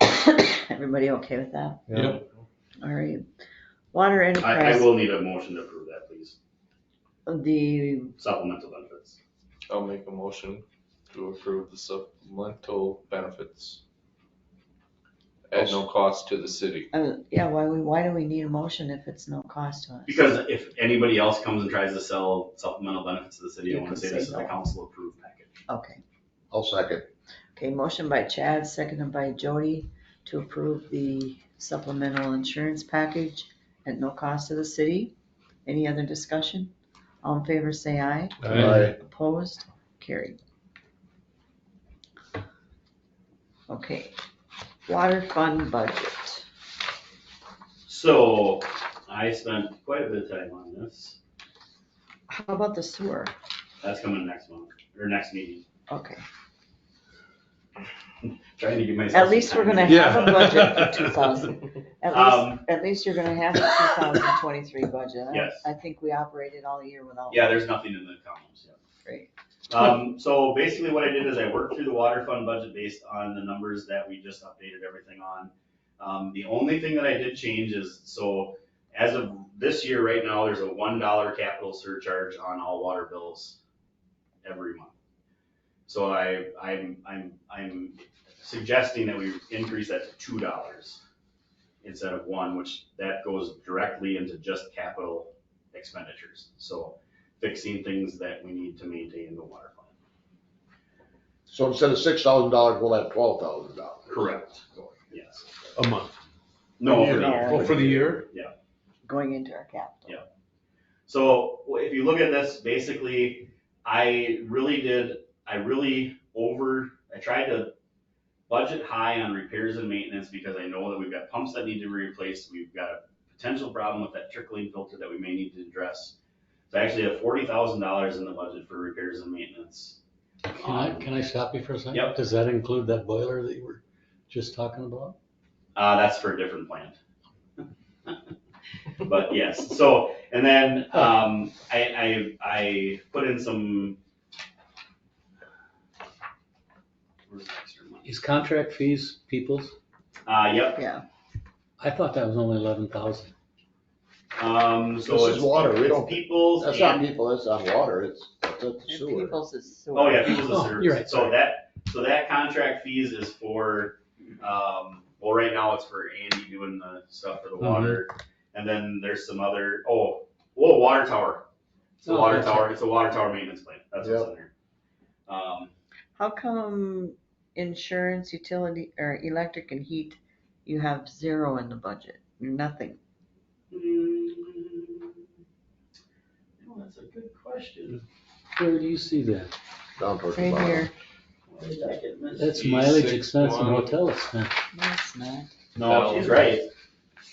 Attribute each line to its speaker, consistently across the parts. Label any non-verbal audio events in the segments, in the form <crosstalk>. Speaker 1: <coughs> Everybody okay with that?
Speaker 2: Yeah.
Speaker 1: All right. Water
Speaker 3: I, I
Speaker 1: enterprise,
Speaker 3: will need a motion to approve that, please.
Speaker 1: the,
Speaker 3: Supplemental benefits.
Speaker 2: I'll make a motion to approve the supplemental benefits at no cost to the city.
Speaker 1: uh, yeah, why, we why do we need a motion if it's no cost to us?
Speaker 3: Because if anybody else comes and tries to sell supplemental benefits to the city,
Speaker 1: You
Speaker 3: I wanna
Speaker 1: can
Speaker 3: say
Speaker 1: say
Speaker 3: this is a
Speaker 1: no.
Speaker 3: council approved package.
Speaker 1: Okay,
Speaker 4: I'll second.
Speaker 1: okay, motion by Chad, seconded by Jody to approve the supplemental insurance package at no cost to the city. Any other discussion? All in favor, say aye.
Speaker 4: Aye.
Speaker 1: Opposed? Carried. Okay, water fund budget.
Speaker 3: So I spent quite a bit of time on this.
Speaker 1: How about the sewer?
Speaker 3: That's coming next month, or next meeting.
Speaker 1: Okay,
Speaker 3: Trying to give myself.
Speaker 1: at
Speaker 3: some
Speaker 1: least we're
Speaker 3: time.
Speaker 1: gonna have a budget for two thousand. At least,
Speaker 3: Um,
Speaker 1: at least you're gonna have a two thousand twenty-three budget. I-
Speaker 3: Yes.
Speaker 1: I think we operated all year without.
Speaker 3: Yeah, there's nothing in the columns, yeah.
Speaker 1: Great.
Speaker 3: Um, so basically what I did is I worked through the water fund budget based on the numbers that we just updated everything on. Um, the only thing that I did change is, so as of this year right now, there's a one dollar capital surcharge on all water bills every month. So I, I'm, I'm, I'm suggesting that we increase that to two dollars instead of one, which that goes directly into just capital expenditures. So fixing things that we need to maintain the water plant.
Speaker 4: So instead of six thousand dollars, we'll have twelve thousand dollars.
Speaker 3: Correct. Yes.
Speaker 5: A month.
Speaker 3: No,
Speaker 1: for the year.
Speaker 5: Oh, for the year?
Speaker 1: Going into our capital.
Speaker 3: Yeah. So if you look at this, basically, I really did, I really over, I tried to budget high on repairs and maintenance because I know that we've got pumps that need to be replaced. We've got a potential problem with that trickling filter that we may need to address. So I actually have forty thousand dollars in the budget for repairs and maintenance.
Speaker 6: Can I, can I stop you for a second?
Speaker 3: Um, Yep.
Speaker 6: Does that include that boiler that you were just talking about?
Speaker 3: Uh, that's for a different plant. <laughs> But yes, so, and then, um, I, I, I put in some. where's the extra money?
Speaker 6: Is contract fees people's?
Speaker 3: Uh, yep,
Speaker 1: Yeah,
Speaker 6: I thought that was only eleven thousand.
Speaker 3: um, so
Speaker 4: This
Speaker 3: it's.
Speaker 4: is water, we
Speaker 3: it's
Speaker 4: don't-
Speaker 3: Peoples
Speaker 4: That's not
Speaker 3: and,
Speaker 4: people, that's not water, it's, that's
Speaker 1: and
Speaker 4: sewer.
Speaker 1: people's is sewer.
Speaker 3: oh yeah, people's
Speaker 6: Oh,
Speaker 3: and
Speaker 6: you're right,
Speaker 3: service, so
Speaker 6: sorry.
Speaker 3: that, so that contract fees is for, um, well, right now it's for Andy doing the stuff for the water. And then there's some other, oh, whoa, water tower. It's a
Speaker 6: Oh,
Speaker 3: water
Speaker 6: that's
Speaker 3: tower, it's a water tower maintenance plan, that's what's in there. Um,
Speaker 1: How come insurance, utility, or electric and heat, you have zero in the budget, nothing?
Speaker 3: mm, well, Oh, that's a good question.
Speaker 6: Where do you see that?
Speaker 4: Down towards the
Speaker 1: Right
Speaker 4: bottom.
Speaker 1: here,
Speaker 3: Why did I get missed?
Speaker 6: That's mileage
Speaker 2: Six
Speaker 6: expense and
Speaker 2: one.
Speaker 6: hotel expense.
Speaker 1: no, it's not,
Speaker 3: No, she's right,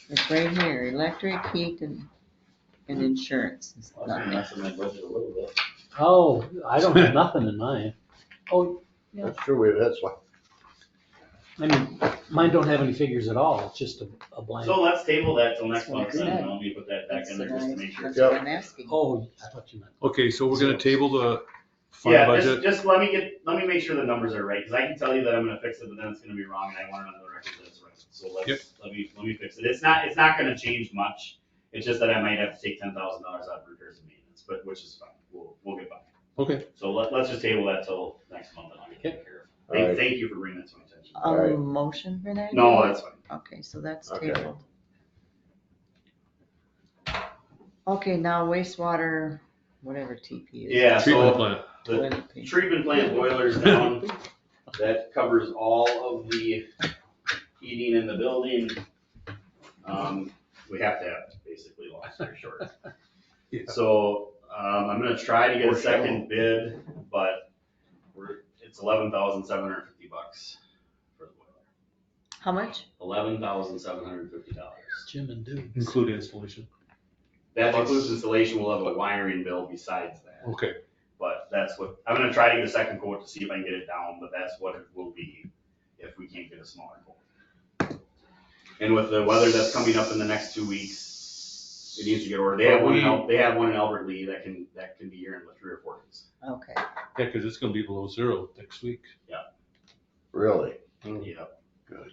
Speaker 1: it's right here, electric, heat, and, and insurance is
Speaker 3: I was
Speaker 1: not there.
Speaker 3: messing my budget a little bit.
Speaker 6: Oh, I don't have nothing in mine. Oh, Yeah.
Speaker 4: That's true, we, that's why.
Speaker 6: I mean, mine don't have any figures at all. It's just a, a blank.
Speaker 3: So let's table that till next
Speaker 1: That's what I
Speaker 3: month, then,
Speaker 1: said.
Speaker 3: and I'll be put that back
Speaker 1: That's
Speaker 3: in
Speaker 1: the
Speaker 3: there just to
Speaker 1: guys-
Speaker 3: make sure.
Speaker 1: That's what
Speaker 4: Yep.
Speaker 1: I'm asking.
Speaker 6: Oh, I thought you meant.
Speaker 5: Okay, so we're gonna table the fund
Speaker 3: Yeah, just,
Speaker 5: budget.
Speaker 3: just let me get, let me make sure the numbers are right, cause I can tell you that I'm gonna fix it, but then it's gonna be wrong, and I want it on the record that it's right. So
Speaker 5: Yep.
Speaker 3: let's, let me, let me fix it. It's not, it's not gonna change much. It's just that I might have to take ten thousand dollars out of repairs and maintenance, but, which is fine. We'll, we'll get by.
Speaker 5: Okay.
Speaker 3: So let, let's just table that till next month, and I'll get that care of. Thank,
Speaker 4: Alright.
Speaker 3: thank you for bringing that to my attention.
Speaker 1: A
Speaker 4: Alright.
Speaker 1: motion for that?
Speaker 3: No, that's fine.
Speaker 1: Okay, so that's
Speaker 4: Okay.
Speaker 1: tabled. Okay, now wastewater, whatever TP is.
Speaker 3: Yeah,
Speaker 5: Treatment
Speaker 3: so
Speaker 5: plant.
Speaker 3: the
Speaker 1: Toilet paper.
Speaker 3: treatment plant boilers down, that covers all of the heating in the building. Um, we have to have basically long story short.
Speaker 5: Yeah.
Speaker 3: So, um, I'm gonna try to get a
Speaker 4: Or shallow.
Speaker 3: second bid, but we're, it's eleven thousand seven hundred fifty bucks for the boiler.
Speaker 1: How much?
Speaker 3: Eleven thousand seven hundred fifty dollars.
Speaker 6: Jim and Duke.
Speaker 5: Include installation.
Speaker 3: That includes installation, we'll have a wiring bill besides that.
Speaker 5: Okay,
Speaker 3: But that's what, I'm gonna try to get a second quote to see if I can get it down, but that's what it will be if we can't get a smaller quote. And with the weather that's coming up in the next two weeks, it needs to get ordered. They have one in, Al- they have one in Albert Lee that can, that can be here in three or four days.
Speaker 1: Okay,
Speaker 5: yeah, cause it's gonna be below zero next week.
Speaker 4: Really?
Speaker 3: Yep.